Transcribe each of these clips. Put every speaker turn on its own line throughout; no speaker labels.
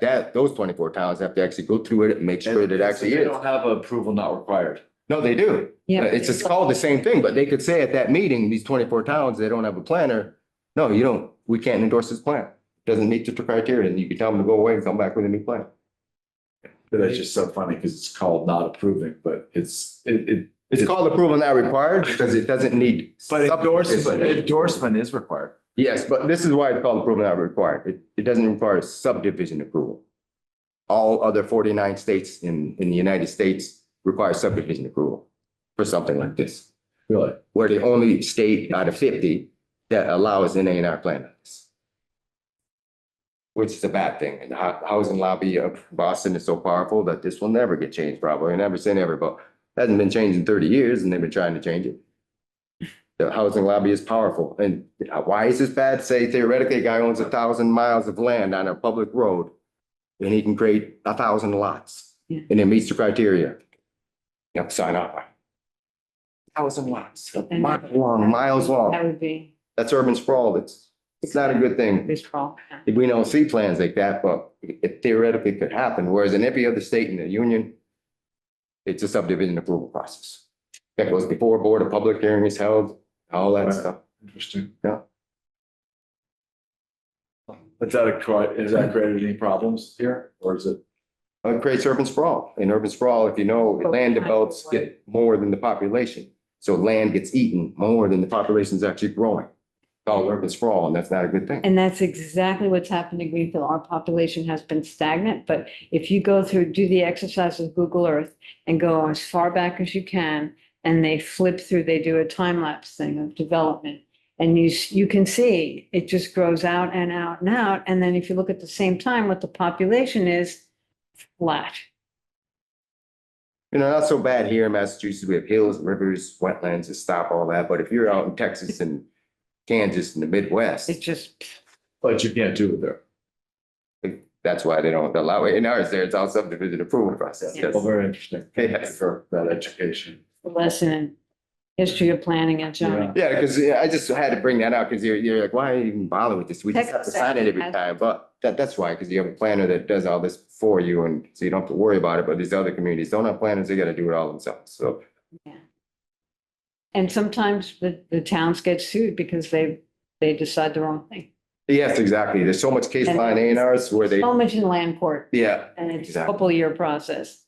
that, those twenty-four towns have to actually go through it and make sure that it actually
They
is.
don't have approval not required.
No, they do.
Yeah.
It's, it's called the same thing, but they could say at that meeting, these twenty-four towns, they don't have a planner. No, you don't, we can't endorse this plan. Doesn't meet the criteria, and you can tell them to go away and come back with a new plan.
But that's just so funny because it's called not approving, but it's, it, it.
It's called approval not required because it doesn't need. subdivision.
endorsement is required.
Yes, but this is why it's called approval not required. It, it doesn't require subdivision approval. All other forty-nine states in, in the United States require subdivision approval for something like this.
Really?
We're the only state out of fifty that allows an A and R plan. on this. Which is a bad thing. And the hou- housing lobby of Boston is so powerful that this will never get changed probably. Never say never, but hasn't been changed in thirty years and they've been trying to change it. The housing lobby is powerful. And why is this bad? Say theoretically, a guy owns a thousand miles of land on a public road and he can create a thousand lots
Yeah.
and it meets the criteria. You have to sign off. Thousand lots,
And-
miles long, miles
That
long.
would be
That's urban sprawl. It's, it's not a good thing.
this fall. yeah.
We don't see plans like that, but it theoretically could happen, whereas in every other state in the union, it's a subdivision approval process. That goes before a board, a public hearing is held, all that stuff.
Interesting.
Yeah.
Is that a, cri- has that created any problems here or is it?
It creates urban sprawl. In urban sprawl, if you know, land develops get more than the population. So land gets eaten more than the population is actually growing. Called urban sprawl, and that's not a good thing.
And that's exactly what's happened to Greenfield. Our population has been stagnant, but if you go through, do the exercise with Google Earth and go as far back as you can, and they flip through, they do a time lapse thing of development. And you, s- you can see it just grows out and out and out. And then if you look at the same time, what the population is flat.
You know, not so bad here in Massachusetts. We have hills, rivers, wetlands to stop all that. But if you're out in Texas and Kansas and the Midwest,
It just,
But you can't do it there.
that's why they don't allow it. In ours, there, it's all subdivision approval process.
Yes.
Well, very interesting.
Yes.
For that education.
lesson in history of planning and zoning.
Yeah, because I just had to bring that out because you're, you're like, why even bother with this? We just have to sign it every time. But that, that's why, because you have a planner that does all this for you and so you don't have to worry about it. But these other communities don't have planners. They got to do it all themselves. So
And sometimes the, the towns get sued because they, they decide the wrong thing.
yes, exactly. There's so much case line A and Rs where they,
So much in land court
yeah,
and it's a
Exactly.
couple year process.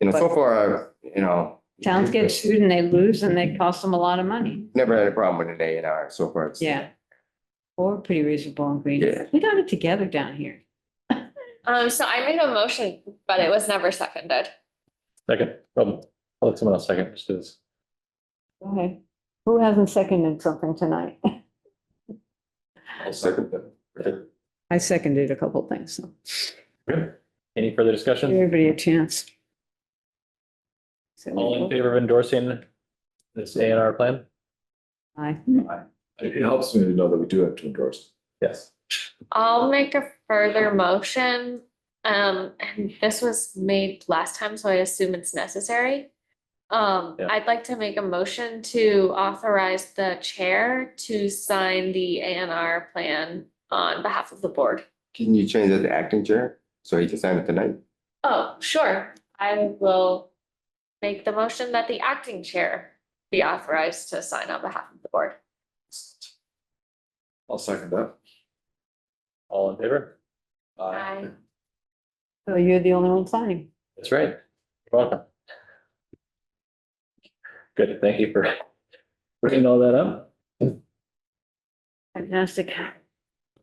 you know, so far, you know.
Towns get sued and they lose and they cost them a lot of money.
Never had a problem with an A and R so far. It's-
Yeah. Or pretty reasonable in Green.
Yeah.
We got it together down here.
Um, so I made a motion, but it was never seconded.
Second, um, I'll let someone else second, just do this.
Go ahead. Who hasn't seconded something tonight?
I'll second that.
I seconded a couple things. so
Any further
Give
discussion?
everybody a chance. So
All in favor of endorsing this A and R plan?
Aye.
It it helps me to know that we do have to endorse.
Yes.
I'll make a further motion. Um, and this was made last time, so I assume it's necessary. Um,
Yeah.
I'd like to make a motion to authorize the chair to sign the A and R plan on behalf of the board.
Can you change that to acting chair? So he can sign it tonight?
Oh, sure. I will make the motion that the acting chair be authorized to sign on behalf of the board.
I'll second that.
All in favor?
Aye.
So you're the only one signing.
That's right. You're Welcome. Good, thank you for bringing all that up.
Fantastic.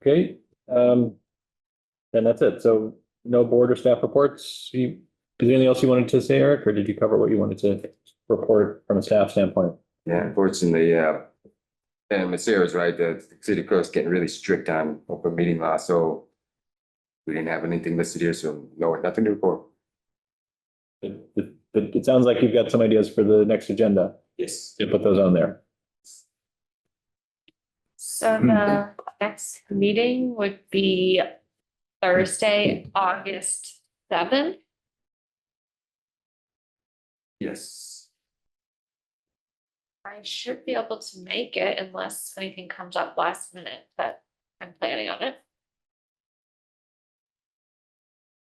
Okay, um, then that's it. So no board or staff reports. You, is there anything else you wanted to say, Eric, or did you cover what you wanted to report from a staff standpoint?
Yeah, unfortunately, yeah. And Messrs. right, the city clerk's getting really strict on open meeting law, so we didn't have anything listed here, so no, nothing to report.
It, it, it sounds like you've got some ideas for the next agenda.
Yes.
You put those on there.
So the next meeting would be Thursday, August seventh.
Yes.
I should be able to make it unless anything comes up last minute, but I'm planning on it.